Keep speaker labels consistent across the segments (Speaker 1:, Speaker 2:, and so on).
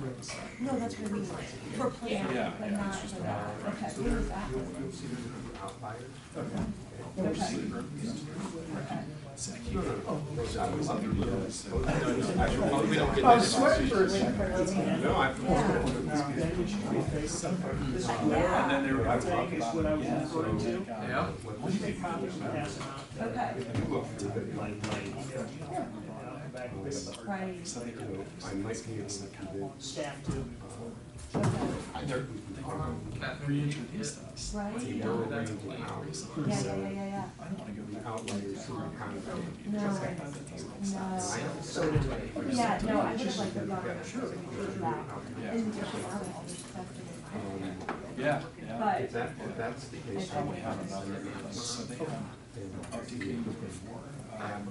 Speaker 1: rooms.
Speaker 2: No, that's what I mean, for planning,
Speaker 3: Yeah,
Speaker 2: but
Speaker 3: yeah,
Speaker 2: not,
Speaker 3: it's just
Speaker 2: but
Speaker 3: a-
Speaker 2: not,
Speaker 3: right.
Speaker 2: okay,
Speaker 1: So
Speaker 2: what
Speaker 1: there,
Speaker 2: is that?
Speaker 1: you'll, you'll see there's a number of outliers.
Speaker 2: Okay,
Speaker 1: No, no,
Speaker 3: Oh.
Speaker 1: no.
Speaker 4: I was sweating for a second.
Speaker 1: No, I.
Speaker 3: And
Speaker 2: yeah,
Speaker 3: then they were gonna talk
Speaker 5: Is
Speaker 3: about
Speaker 5: what I was
Speaker 3: yeah,
Speaker 5: referring
Speaker 3: so,
Speaker 5: to.
Speaker 3: like, uh,
Speaker 4: Yeah.
Speaker 3: what do they call it?
Speaker 2: okay, right,
Speaker 3: So they go,
Speaker 1: I might be able to do
Speaker 5: Staff too.
Speaker 2: okay,
Speaker 3: they go reintroduced us.
Speaker 2: right,
Speaker 1: the
Speaker 2: yeah,
Speaker 1: narrow
Speaker 2: yeah,
Speaker 1: range of outliers.
Speaker 2: yeah,
Speaker 1: So
Speaker 2: yeah, yeah,
Speaker 3: I don't wanna go
Speaker 1: the
Speaker 3: back.
Speaker 1: outliers are kind of.
Speaker 2: no,
Speaker 1: I
Speaker 2: no.
Speaker 1: have so many.
Speaker 2: Yeah, no, I would have liked the rock, sure, that,
Speaker 3: Yeah.
Speaker 2: in the different articles, definitely.
Speaker 1: Um,
Speaker 3: Yeah, yeah.
Speaker 2: But-
Speaker 1: If that, if that's the case.
Speaker 3: And we have another, like, so they have a decade before, um,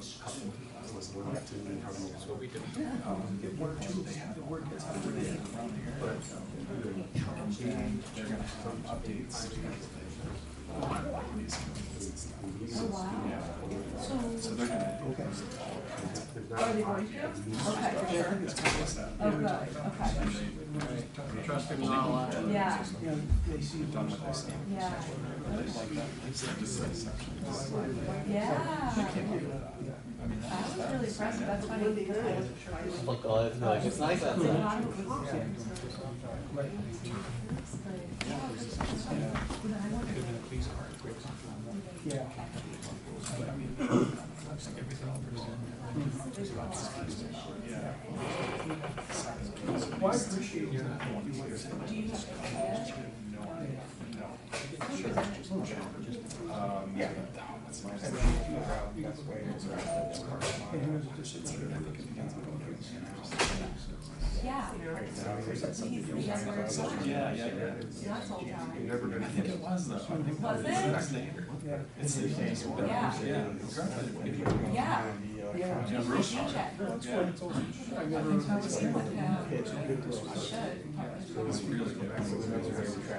Speaker 1: Was one of two, and how many was what we did.
Speaker 3: um, and they have, it's how they have around here. And they're gonna have updates. on these companies.
Speaker 2: Oh, wow,
Speaker 3: So
Speaker 2: so,
Speaker 3: they're gonna.
Speaker 2: are they going to? Okay, for sure,
Speaker 3: That's kind of sad.
Speaker 2: oh, good, okay,
Speaker 4: Trust him, not a lot.
Speaker 2: yeah,
Speaker 5: You know, they see
Speaker 3: They've done what they said.
Speaker 2: yeah,
Speaker 3: But they like that. It's like this exception. It's like,
Speaker 2: yeah.
Speaker 3: I mean,
Speaker 2: That
Speaker 3: that's,
Speaker 2: was really impressive, that's funny.
Speaker 6: Look, all I feel like it's nice outside.
Speaker 5: Yeah. Well, I appreciate you.
Speaker 2: Yeah. He's the younger son.
Speaker 3: yeah, yeah, yeah.
Speaker 2: That's all time.
Speaker 1: Never gonna.
Speaker 3: I think it was though. I think
Speaker 2: Was
Speaker 3: that
Speaker 2: it?
Speaker 3: the standard.
Speaker 5: Yeah.
Speaker 3: It's the standard.
Speaker 2: Yeah.
Speaker 3: Yeah. Exactly.
Speaker 2: Yeah.
Speaker 5: Yeah.
Speaker 2: He's the DJ.
Speaker 3: Yeah.
Speaker 2: Yeah. He should.
Speaker 3: It's really good.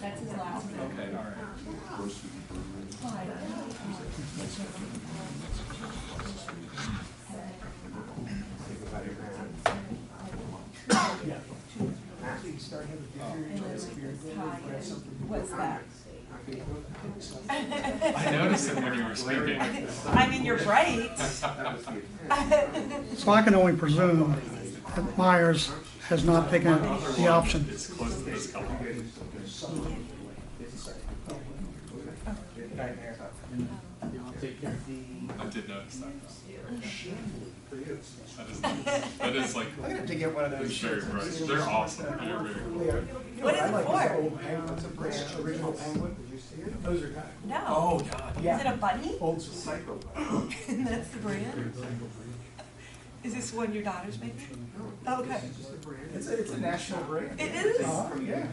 Speaker 2: That's his last name.
Speaker 3: Okay, all right.
Speaker 2: Fine.
Speaker 5: Start having different
Speaker 2: And then
Speaker 5: interests here.
Speaker 2: it's Ty and what's that?
Speaker 3: I noticed it when you were sleeping.
Speaker 2: I mean, you're right.
Speaker 7: So I can only presume that Myers has not taken the option.
Speaker 3: It's close to this color. I did notice that. That is, that is like,
Speaker 4: I gotta get one of
Speaker 3: it's very bright. They're awesome. They're very cool.
Speaker 2: What is it for?
Speaker 1: That's a brand, original penguin, did you see it? Those are kind
Speaker 2: No.
Speaker 3: God.
Speaker 2: Is it a bunny?
Speaker 1: of Oh, old psycho.
Speaker 2: That's the brand? Is this one your daughter's making? Okay.
Speaker 1: Just a brand.
Speaker 4: It's a, it's a national brand.
Speaker 2: It is?
Speaker 1: From the UK.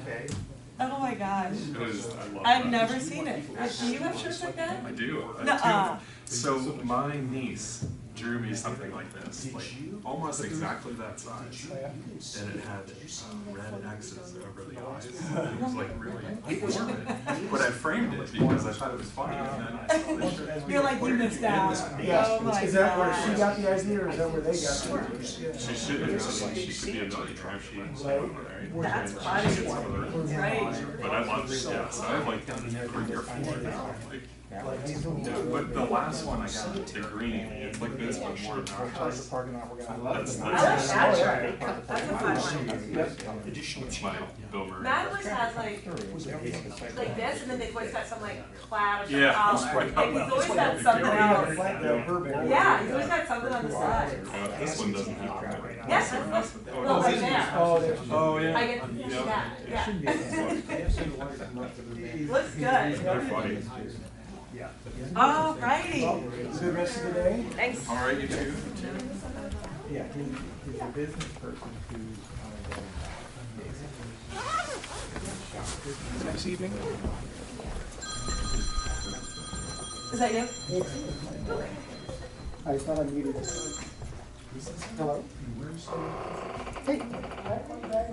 Speaker 2: Oh my gosh.
Speaker 3: It is, I love
Speaker 2: I've
Speaker 3: that.
Speaker 2: never seen it. Do you have shirts like that?
Speaker 3: I do. I
Speaker 2: Nuh-uh.
Speaker 3: do. So my niece drew me something like this, like almost exactly that size, and it had uh, red X's over the eyes. It was like really morbid, but I framed it because I thought it was funny, and then I saw this shirt.
Speaker 2: You're like, you missed out. Oh my
Speaker 4: Is that where she
Speaker 2: gosh.
Speaker 4: got the idea or is that where they got it?
Speaker 3: She should have known she could be a millionaire if she was married.
Speaker 2: That's
Speaker 3: She
Speaker 2: funny.
Speaker 3: gets some of the rest.
Speaker 2: Right.
Speaker 3: But I love this, yeah, so I have like three or four now, like. Dude, But the last one I got, the green, it's like this, but more
Speaker 4: Charge
Speaker 3: obnoxious.
Speaker 4: the parking lot, we're gonna.
Speaker 3: That's,
Speaker 2: I
Speaker 3: that's
Speaker 2: like that shirt. That's a fun one.
Speaker 3: that's my Bill Murray.
Speaker 2: Matt always has like, like this, and then they've always got some like cloud or some
Speaker 3: Yeah.
Speaker 2: collar. Like he's always got something else. Yeah, he's always got something on the side.
Speaker 3: Yeah, this one doesn't have. that.
Speaker 2: Yes, that's what,
Speaker 3: Oh,
Speaker 2: well,
Speaker 3: this
Speaker 2: right
Speaker 3: is-
Speaker 2: there.
Speaker 4: Oh, there's.
Speaker 3: Oh, yeah.
Speaker 2: I get
Speaker 3: You know,
Speaker 2: that, yeah.
Speaker 4: Good
Speaker 2: Looks good.
Speaker 3: They're funny.
Speaker 2: Alrighty.
Speaker 4: rest of the day?
Speaker 2: Thanks.
Speaker 3: All right, you two.
Speaker 4: Yeah, he's, he's a business person who's. This evening?
Speaker 2: Is that you?
Speaker 4: I thought I needed. Hello? Hey.